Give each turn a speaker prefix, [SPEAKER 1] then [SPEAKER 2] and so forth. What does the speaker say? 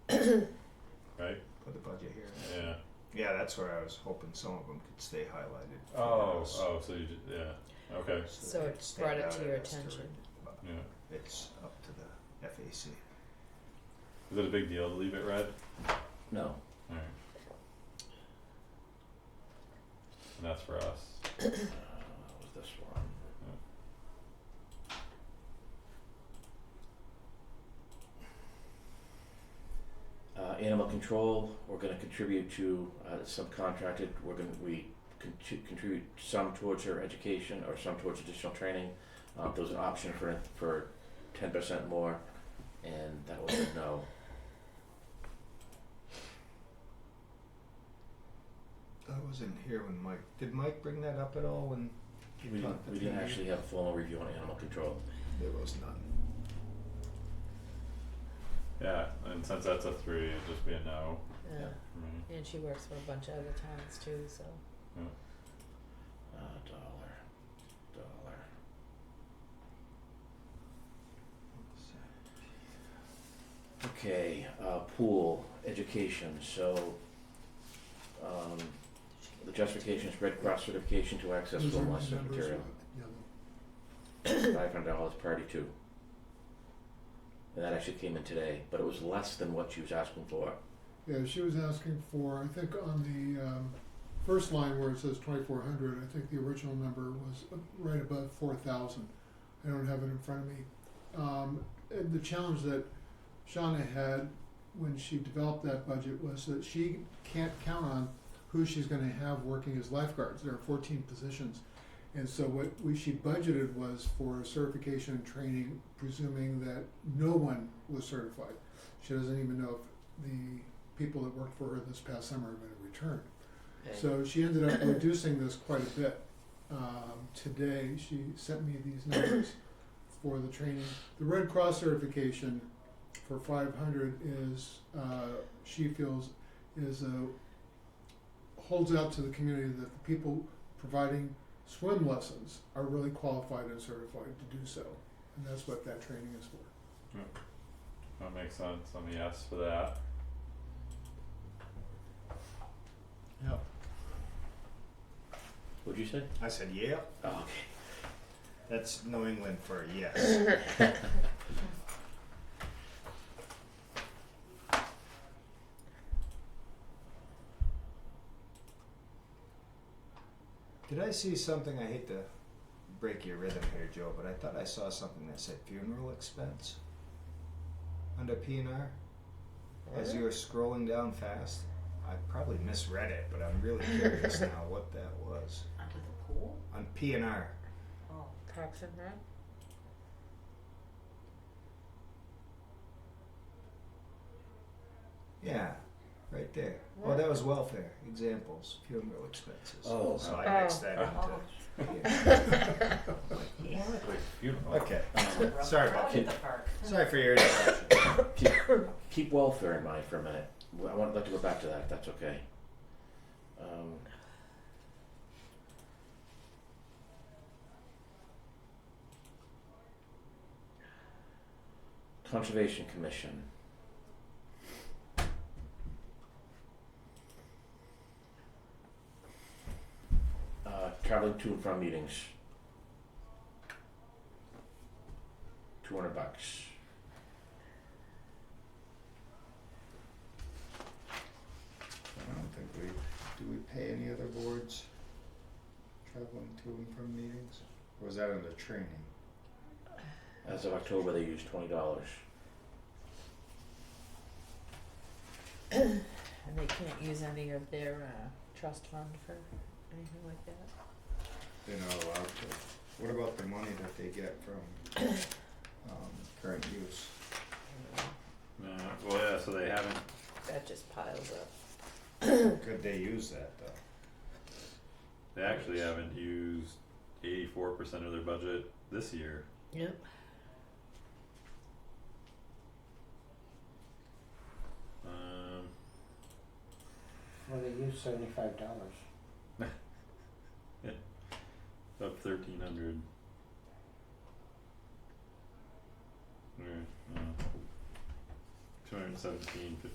[SPEAKER 1] right?
[SPEAKER 2] Put the budget here.
[SPEAKER 1] Yeah.
[SPEAKER 2] Yeah, that's where I was hoping some of them could stay highlighted. for
[SPEAKER 1] Oh,
[SPEAKER 2] us,
[SPEAKER 1] oh, so you, ju- yeah, okay,
[SPEAKER 2] so
[SPEAKER 3] So
[SPEAKER 2] they
[SPEAKER 3] it
[SPEAKER 2] could stand
[SPEAKER 3] brought it
[SPEAKER 2] out
[SPEAKER 3] to your
[SPEAKER 2] as
[SPEAKER 3] attention.
[SPEAKER 2] But
[SPEAKER 1] yeah.
[SPEAKER 2] It's up to the FAC.
[SPEAKER 1] Is it a big deal to leave it red?
[SPEAKER 4] No.
[SPEAKER 1] Alright. And that's for us.
[SPEAKER 4] Uh, was this one? Uh, animal control, we're gonna contribute to, uh, subcontracted, we're gonna, we con- to contribute some towards her education or some towards additional training. Uh, there was an option for, for ten percent more, and that was a no.
[SPEAKER 2] I wasn't here when Mike, did Mike bring that up at all when
[SPEAKER 4] We
[SPEAKER 2] you
[SPEAKER 4] didn't,
[SPEAKER 2] talked to
[SPEAKER 4] we didn't
[SPEAKER 2] Jamie?
[SPEAKER 4] actually have a formal review on animal control.
[SPEAKER 2] There was none.
[SPEAKER 1] Yeah, and since that's a three, it'd just be a no for
[SPEAKER 3] Yeah.
[SPEAKER 1] me.
[SPEAKER 3] Uh, And she works for a bunch of other towns too, so.
[SPEAKER 4] Uh, dollar, dollar. Okay, uh, pool, education, so, um, the justification is Red Cross certification to access
[SPEAKER 5] Those are
[SPEAKER 4] film
[SPEAKER 5] my
[SPEAKER 4] lesson
[SPEAKER 5] numbers,
[SPEAKER 4] material,
[SPEAKER 5] uh, yellow.
[SPEAKER 4] five hundred dollars per party two. And that actually came in today, but it was less than what she was asking for.
[SPEAKER 5] Yeah, she was asking for, I think on the um, first line where it says twenty-four hundred, I think the original number was right above four thousand. I don't have it in front of me. Um, and the challenge that Shauna had when she developed that budget was that she can't count on who she's gonna have working as lifeguards. There are fourteen positions. And so what we, she budgeted was for certification and training, presuming that no one was certified. She doesn't even know if the people that worked for her this past summer are going to return. So she ended up reducing this quite a bit. Um, today, she sent me these numbers for the training. The Red Cross certification for 500 is, uh, she feels, is a, holds out to the community that the people providing swim lessons are really qualified and certified to do so. And that's what that training is for.
[SPEAKER 1] That makes sense, I'm a yes for that.
[SPEAKER 5] Yeah.
[SPEAKER 4] What'd you say?
[SPEAKER 2] I said, yeah,
[SPEAKER 5] Uh,
[SPEAKER 4] Oh,
[SPEAKER 2] that's New England for a yes. Did I see something? I hate to break your rhythm here, Joe, but I thought I saw something that said funeral expense under P and R. As you were scrolling down fast, I probably misread it, but I'm really curious now what that was.
[SPEAKER 6] Under the pool?
[SPEAKER 2] On P and R,
[SPEAKER 6] Oh.
[SPEAKER 3] Parks and Rec?
[SPEAKER 2] yeah, right there. Oh, that was welfare examples, funeral expenses.
[SPEAKER 4] Oh.
[SPEAKER 2] so I mixed
[SPEAKER 3] Oh.
[SPEAKER 2] that
[SPEAKER 6] Oh.
[SPEAKER 2] into. Yeah.
[SPEAKER 6] Yeah.
[SPEAKER 1] Like funeral.
[SPEAKER 2] Okay, um,
[SPEAKER 4] okay.
[SPEAKER 2] Sorry
[SPEAKER 6] Out
[SPEAKER 2] about
[SPEAKER 6] at the park.
[SPEAKER 2] sorry for your interruption.
[SPEAKER 4] keep, keep welfare in mind for a minute. Well, I want, like to go back to that, if that's okay. Um. Conservation Commission. Uh, traveling to and from meetings. Two hundred bucks.
[SPEAKER 2] I don't think we, do we pay any other boards traveling to and from meetings? Or was that under training?
[SPEAKER 4] As of October, they used twenty dollars.
[SPEAKER 3] And they can't use any of their uh trust fund for anything like that?
[SPEAKER 2] They're not allowed to. What about the money that they get from, um, current use?
[SPEAKER 1] Yeah, well, yeah, so they haven't,
[SPEAKER 3] That just piles up.
[SPEAKER 2] Could they use that though?
[SPEAKER 1] they actually haven't used eighty-four percent of their budget this year.
[SPEAKER 3] Yep.
[SPEAKER 1] Um,
[SPEAKER 7] Well, they used seventy-five dollars.
[SPEAKER 1] up thirteen hundred. Alright, yeah. uh, Two hundred seventeen fifty